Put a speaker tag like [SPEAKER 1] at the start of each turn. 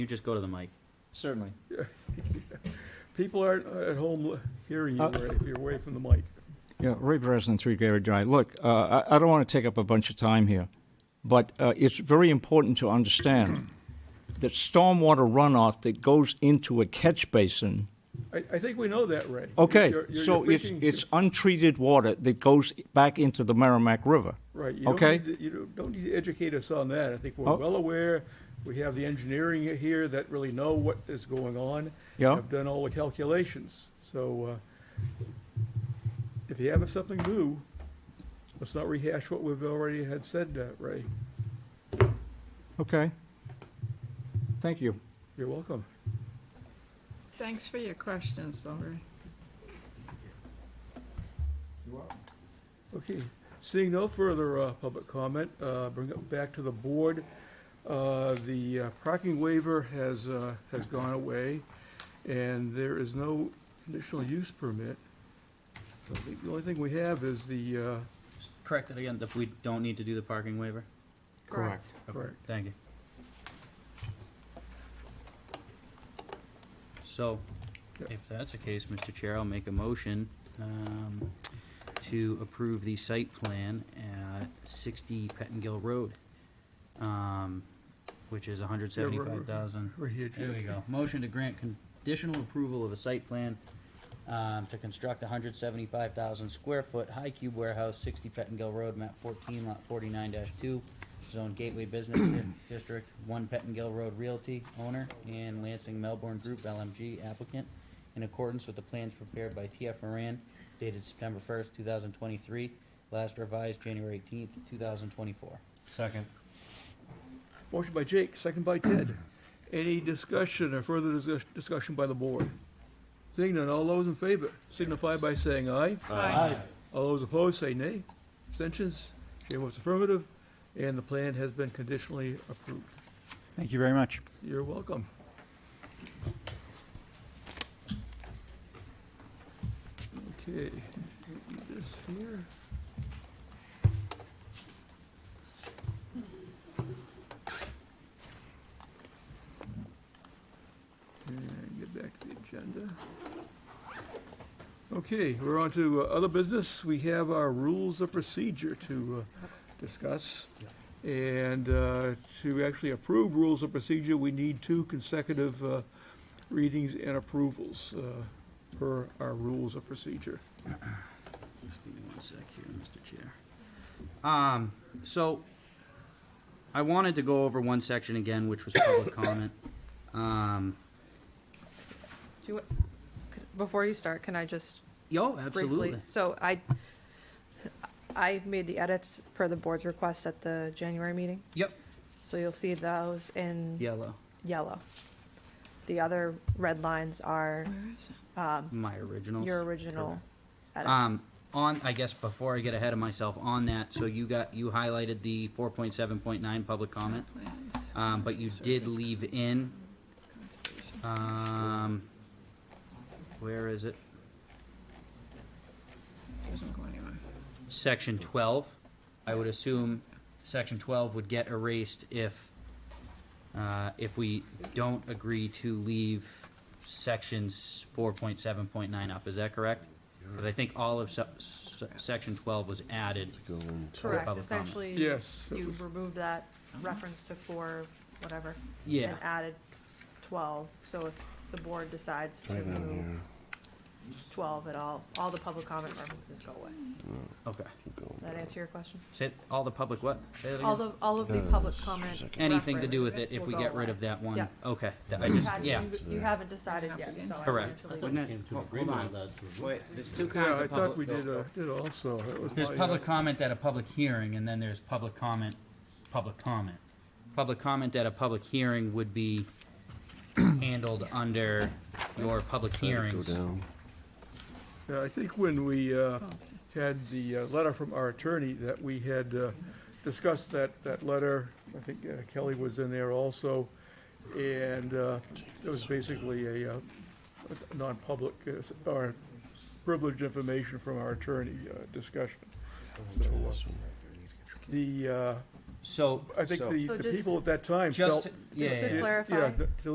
[SPEAKER 1] You just go to the mic.
[SPEAKER 2] Certainly.
[SPEAKER 3] People aren't at home li- hearing you
[SPEAKER 2] Uh,
[SPEAKER 3] right, if you're away from the mic.
[SPEAKER 2] Yeah, Ray Breslin, Three Gateway Drive. Look, uh, I I don't want to take up a bunch of time here, but uh, it's very important to understand that stormwater runoff that goes into a catch basin,
[SPEAKER 3] I, I think we know that, Ray.
[SPEAKER 2] okay,
[SPEAKER 3] You're- you're-
[SPEAKER 2] so
[SPEAKER 3] you're
[SPEAKER 2] it's
[SPEAKER 3] preaching-
[SPEAKER 2] it's untreated water that goes back into the Merrimack River.
[SPEAKER 3] Right, you don't
[SPEAKER 2] okay.
[SPEAKER 3] need, to- you don't- don't need to educate us on that. I think we're
[SPEAKER 2] Oh.
[SPEAKER 3] well aware. We have the engineering here that really know what is going on.
[SPEAKER 2] Yeah.
[SPEAKER 3] Have done all the calculations, so, uh, if you have something new, let's not rehash what we've already had said, uh, Ray.
[SPEAKER 2] Okay. Thank you.
[SPEAKER 3] You're welcome.
[SPEAKER 4] Thanks for your questions, though, Ray.
[SPEAKER 3] Okay, seeing no further uh, public comment, uh, bring it back to the board. Uh, The uh, parking waiver has, uh, has gone away, and there is no conditional use permit. So I think The only thing we have is the, uh,
[SPEAKER 1] Just Correct it again, if we don't need to do the parking waiver?
[SPEAKER 2] Correct.
[SPEAKER 1] Okay,
[SPEAKER 3] Correct.
[SPEAKER 1] Thank you. So,
[SPEAKER 3] Yep.
[SPEAKER 1] if that's the case, Mr. Chair, I'll make a motion, um, to approve the site plan at sixty Pettingill Road, um, which is hundred seventy-five thousand.
[SPEAKER 3] right here,
[SPEAKER 1] There we
[SPEAKER 3] Jim.
[SPEAKER 1] go. Motion to grant conditional approval of a site plan um, to construct a hundred seventy-five thousand square foot high cube warehouse, sixty Pettingill Road, map fourteen, lot forty-nine two, zone gateway business Di- district, one Pettingill Road Realty owner, and Lansing Melbourne Group LMG applicant, in accordance with the plans prepared by TF Moran dated September first, two thousand twenty-three, last revised January eighteenth, two thousand twenty-four.
[SPEAKER 5] Second.
[SPEAKER 3] Motion by Jake, second by Ted. Any discussion or further dis- discussion by the board? Seeing none, all those in favor signify by saying aye.
[SPEAKER 4] Aye.
[SPEAKER 3] All those opposed, say nay. Abstentions? Chair votes affirmative, and the plan has been conditionally approved.
[SPEAKER 5] Thank you very much.
[SPEAKER 3] You're welcome. Okay, do this here. And get back to the agenda. Okay, we're on to uh, other business. We have our rules of procedure to uh, discuss. And uh, to actually approve rules of procedure, we need two consecutive uh, readings and approvals uh, per our rules of procedure.
[SPEAKER 1] Just give me one sec here, Mr. Chair. Um, so, I wanted to go over one section again, which was public comment. Um,
[SPEAKER 6] Do you, could- before you start, can I just
[SPEAKER 1] yo,
[SPEAKER 6] briefly?
[SPEAKER 1] absolutely.
[SPEAKER 6] So I, I made the edits per the board's request at the January meeting,
[SPEAKER 1] Yep,
[SPEAKER 6] so you'll see those in
[SPEAKER 1] yellow,
[SPEAKER 6] yellow. The other red lines are
[SPEAKER 4] Where is it?
[SPEAKER 1] my original.
[SPEAKER 6] Um, your original edits.
[SPEAKER 1] Um, on, I guess, before I get ahead of myself, on that, so you got, you highlighted the four point seven point nine public comment,
[SPEAKER 4] Plans,
[SPEAKER 1] um, but you did leave in,
[SPEAKER 4] conservation.
[SPEAKER 1] um, where is it?
[SPEAKER 4] Doesn't go anywhere.
[SPEAKER 1] section twelve. I would assume section twelve would get erased if, uh, if we don't agree to leave sections four point seven point nine up, is that correct? Cause I think all of se- se- section twelve was added.
[SPEAKER 6] Correct,
[SPEAKER 1] public comment.
[SPEAKER 6] essentially.
[SPEAKER 3] Yes.
[SPEAKER 6] You removed that reference to four, whatever.
[SPEAKER 1] Yeah,
[SPEAKER 6] And added twelve, so if the board decides to move twelve at all, all the public comment references go away.
[SPEAKER 1] okay.
[SPEAKER 6] That answer your question?
[SPEAKER 1] Say, all the public what? Say that
[SPEAKER 6] All
[SPEAKER 1] again?
[SPEAKER 6] the, all of the public comment.
[SPEAKER 1] Anything to do with it
[SPEAKER 6] reference
[SPEAKER 1] if we
[SPEAKER 6] will
[SPEAKER 1] get
[SPEAKER 6] go
[SPEAKER 1] rid
[SPEAKER 6] away.
[SPEAKER 1] of that one?
[SPEAKER 6] Yeah.
[SPEAKER 1] Okay, that- I just,
[SPEAKER 6] Had-
[SPEAKER 1] yeah,
[SPEAKER 6] you- You haven't decided yet, so. I wanted
[SPEAKER 1] Correct.
[SPEAKER 6] to leave it.
[SPEAKER 7] Oh, Hold on, wait, there's two
[SPEAKER 3] Yeah,
[SPEAKER 7] kinds
[SPEAKER 3] I
[SPEAKER 7] of
[SPEAKER 3] thought
[SPEAKER 7] public.
[SPEAKER 3] we did, uh, did also. That was
[SPEAKER 1] There's
[SPEAKER 6] Oh,
[SPEAKER 3] my, uh,
[SPEAKER 1] public comment at a public hearing, and then there's public comment, public comment. Public comment at a public hearing would be handled under your public hearings.
[SPEAKER 3] Yeah, I think when we uh, had the uh, letter from our attorney, that we had uh, discussed that, that letter, I think uh, Kelly was in there also, and uh, it was basically a uh, a non-public, uh, s- or privileged information from our attorney uh, discussion. So, uh, The, uh,
[SPEAKER 1] So,
[SPEAKER 3] I think the
[SPEAKER 6] So
[SPEAKER 3] the uh,
[SPEAKER 6] just-
[SPEAKER 3] people at that time felt.
[SPEAKER 1] just, yeah, yeah,
[SPEAKER 6] Just to
[SPEAKER 1] yeah.
[SPEAKER 3] Yeah,
[SPEAKER 6] clarify.
[SPEAKER 3] yeah, th- to